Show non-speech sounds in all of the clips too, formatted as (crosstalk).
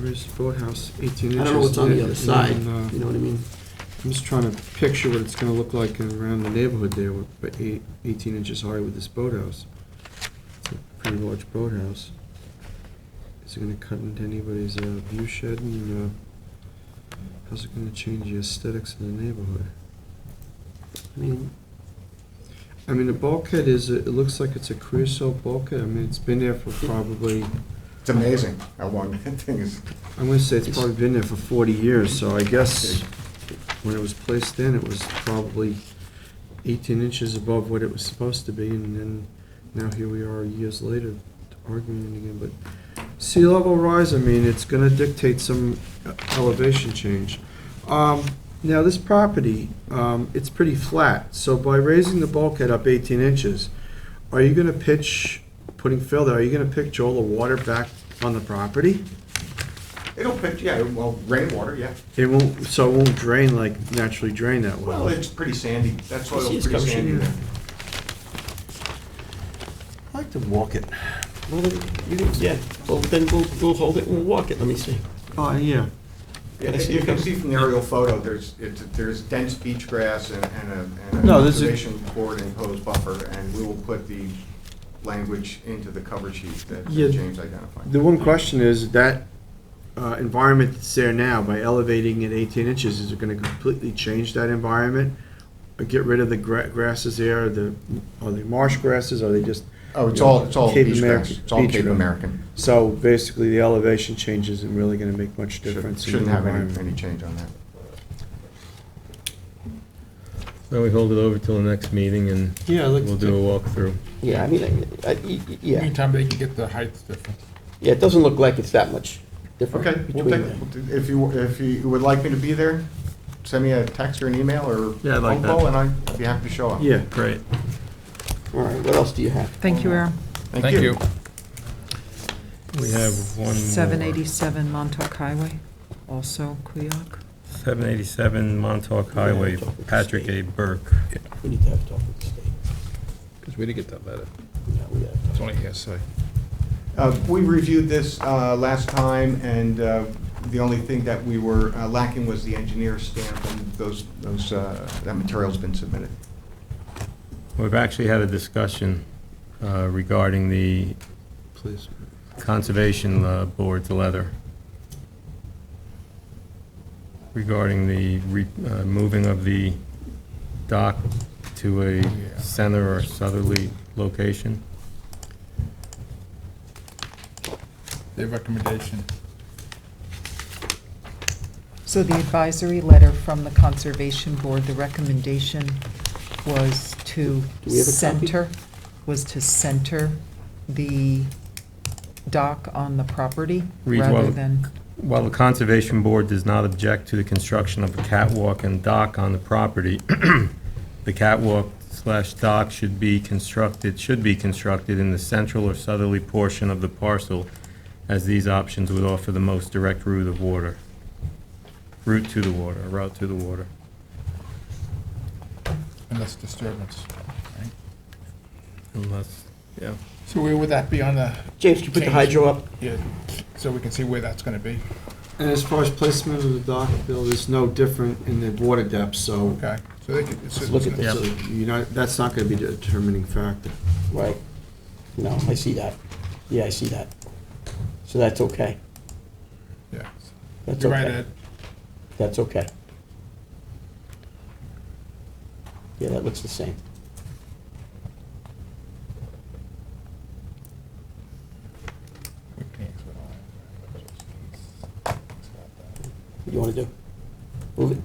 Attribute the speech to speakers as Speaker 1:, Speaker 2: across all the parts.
Speaker 1: Where's Boathouse, 18 inches?
Speaker 2: I don't know what's on the
Speaker 1: Yeah,
Speaker 2: other side,
Speaker 1: and, uh,
Speaker 2: you know what I mean?
Speaker 1: I'm just trying to picture what it's gonna look like around the neighborhood there, with but eight- 18 inches high with this boathouse. It's a pretty large boathouse. Is it gonna cut into anybody's uh, view shed, and uh, how's it gonna change the aesthetics of the neighborhood?
Speaker 2: I mean,
Speaker 1: I mean, the bulkhead is, it looks like it's a creosote bulkhead, I mean, it's been there for probably,
Speaker 3: It's amazing how long (laughs) that thing is.
Speaker 1: I'm gonna say it's probably been there for 40 years, so I guess when it was placed in, it was probably 18 inches above what it was supposed to be, and then now here we are years later arguing it again, but sea level rise, I mean, it's gonna dictate some elevation change. Um, Now, this property, um, it's pretty flat, so by raising the bulkhead up 18 inches, are you gonna pitch, putting fill there, are you gonna pitch all the water back on the property?
Speaker 3: It'll pitch, yeah, well, rainwater, yeah.
Speaker 1: It won't, so it won't drain like naturally drain that well?
Speaker 3: Well, it's pretty sandy, that soil's
Speaker 2: see it's
Speaker 3: pretty
Speaker 2: covered
Speaker 3: sandy
Speaker 1: in-
Speaker 3: there.
Speaker 1: I like to walk it.
Speaker 2: well, then, you can- yeah, well, then we'll, we'll hold it and we'll walk it, let me see.
Speaker 1: Oh, yeah.
Speaker 3: Yeah,
Speaker 2: Can I see
Speaker 3: You
Speaker 2: it
Speaker 3: can
Speaker 2: first?
Speaker 3: see from the aerial photo, there's, it's, there's dense beach grass and and a, and a
Speaker 1: No, this is-
Speaker 3: conservation board imposed buffer, and we will put the language into the cover sheet that that
Speaker 1: Yeah.
Speaker 3: James identified.
Speaker 1: The one question is that uh, environment that's there now, by elevating it 18 inches, is it going to completely change that environment? Or Get rid of the gra- grasses there, the, are they marsh grasses, are they just?
Speaker 3: Oh, it's all, it's all
Speaker 1: Cape
Speaker 3: beach grass,
Speaker 1: American-
Speaker 3: it's all
Speaker 1: beach
Speaker 3: Cape
Speaker 1: grass.
Speaker 3: American.
Speaker 1: So basically, the elevation change isn't really going to make much
Speaker 3: Shouldn't
Speaker 1: difference. in the
Speaker 3: shouldn't have any,
Speaker 1: environment.
Speaker 3: any change on that.
Speaker 4: Then we hold it over till the next meeting and
Speaker 1: Yeah, I'd like
Speaker 4: we'll
Speaker 1: to
Speaker 4: do a walkthrough.
Speaker 2: Yeah, I mean, I- I- y- y- yeah,
Speaker 5: Meantime, they can get the heights different.
Speaker 2: yeah, it doesn't look like it's that much different.
Speaker 3: Okay, we'll
Speaker 2: between
Speaker 3: take, if you, if you would like me to be there, send me a text or an email or
Speaker 4: Yeah, I'd like
Speaker 3: phone call, and I'd be happy to show up.
Speaker 1: Yeah.
Speaker 4: Great.
Speaker 2: the- All right, what else do you have?
Speaker 6: Thank you, Aaron.
Speaker 5: Thank you.
Speaker 4: We have one more.
Speaker 6: 787 Montauk Highway, also Kuyak.
Speaker 4: 787 Montauk Highway, Patrick A. Burke.
Speaker 2: We need to have a talk with the state.
Speaker 5: Because we didn't get that letter.
Speaker 2: Yeah, we gotta talk.
Speaker 5: It's only hearsay.
Speaker 3: Uh, We reviewed this uh, last time, and uh, the only thing that we were uh, lacking was the engineer stamp, and those, those, uh, that material's been submitted.
Speaker 4: We've actually had a discussion uh, regarding the
Speaker 1: Please.
Speaker 4: Conservation uh, Board's letter regarding the re- uh, moving of the dock to a center or southerly location.
Speaker 5: Their recommendation.
Speaker 6: So the advisory letter from the Conservation Board, the recommendation was to
Speaker 2: Do we have a copy?
Speaker 6: center, was to center the dock on the property
Speaker 4: Read
Speaker 6: rather
Speaker 4: well.
Speaker 6: than,
Speaker 4: While the Conservation Board does not object to the construction of a catwalk and dock on the property, (clears throat) the catwalk slash dock should be constructed, should be constructed in the central or southerly portion of the parcel, as these options would offer the most direct route of water, route to the water, route to the water.
Speaker 5: And that's disturbance. right?
Speaker 4: Unless, yeah.
Speaker 5: So where would that be on the,
Speaker 2: James, can you put the
Speaker 5: Change.
Speaker 2: hydro up?
Speaker 5: yeah, so we can see where that's gonna be?
Speaker 1: And as far as placement of the dock, Bill, there's no different in the water depth, so
Speaker 5: Okay, so they could. so-
Speaker 2: Let's look at
Speaker 4: Yeah.
Speaker 1: so you're not, that's not going to be a determining factor.
Speaker 2: Right. No, I see that. Yeah, I see that. So that's okay.
Speaker 5: Yeah.
Speaker 2: That's
Speaker 5: You're right,
Speaker 2: okay.
Speaker 5: Ed.
Speaker 2: That's okay. Yeah, that looks the same. What do you want to do? Move it,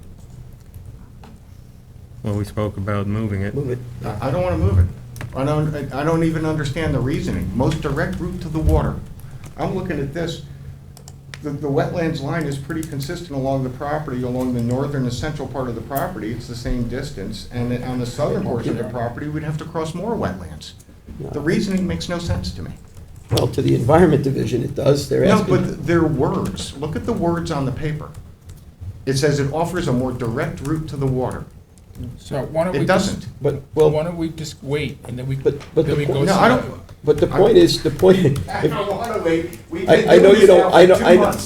Speaker 4: Well, we spoke about moving it.
Speaker 2: move it.
Speaker 3: I I don't want to move it. I don't, I don't even understand the reasoning. Most direct route to the water. I'm looking at this, the, the wetlands line is pretty consistent along the property, along the northern and central part of the property. It's the same distance, and then on the southern portion of the property, we'd have to cross more wetlands. The reasoning makes no sense to me.
Speaker 2: Well, to the Environment Division, it does. They're
Speaker 3: No,
Speaker 2: asking.
Speaker 3: but their words, look at the words on the paper. It says it offers a more direct route to the water.
Speaker 5: So why don't we?
Speaker 3: It
Speaker 5: just-
Speaker 3: doesn't.
Speaker 2: But,
Speaker 5: Why
Speaker 2: well,
Speaker 5: don't we just wait and then we,
Speaker 2: But- but
Speaker 5: then
Speaker 2: the
Speaker 5: we go.
Speaker 2: point-
Speaker 3: No, I don't,
Speaker 2: but the point (laughs) is, the point,
Speaker 3: I don't want to wait. We've
Speaker 2: I-
Speaker 3: been
Speaker 2: I know
Speaker 3: doing
Speaker 2: you
Speaker 3: this
Speaker 2: don't-
Speaker 3: now
Speaker 2: I
Speaker 3: for
Speaker 2: know-
Speaker 3: two
Speaker 2: I know-
Speaker 3: months.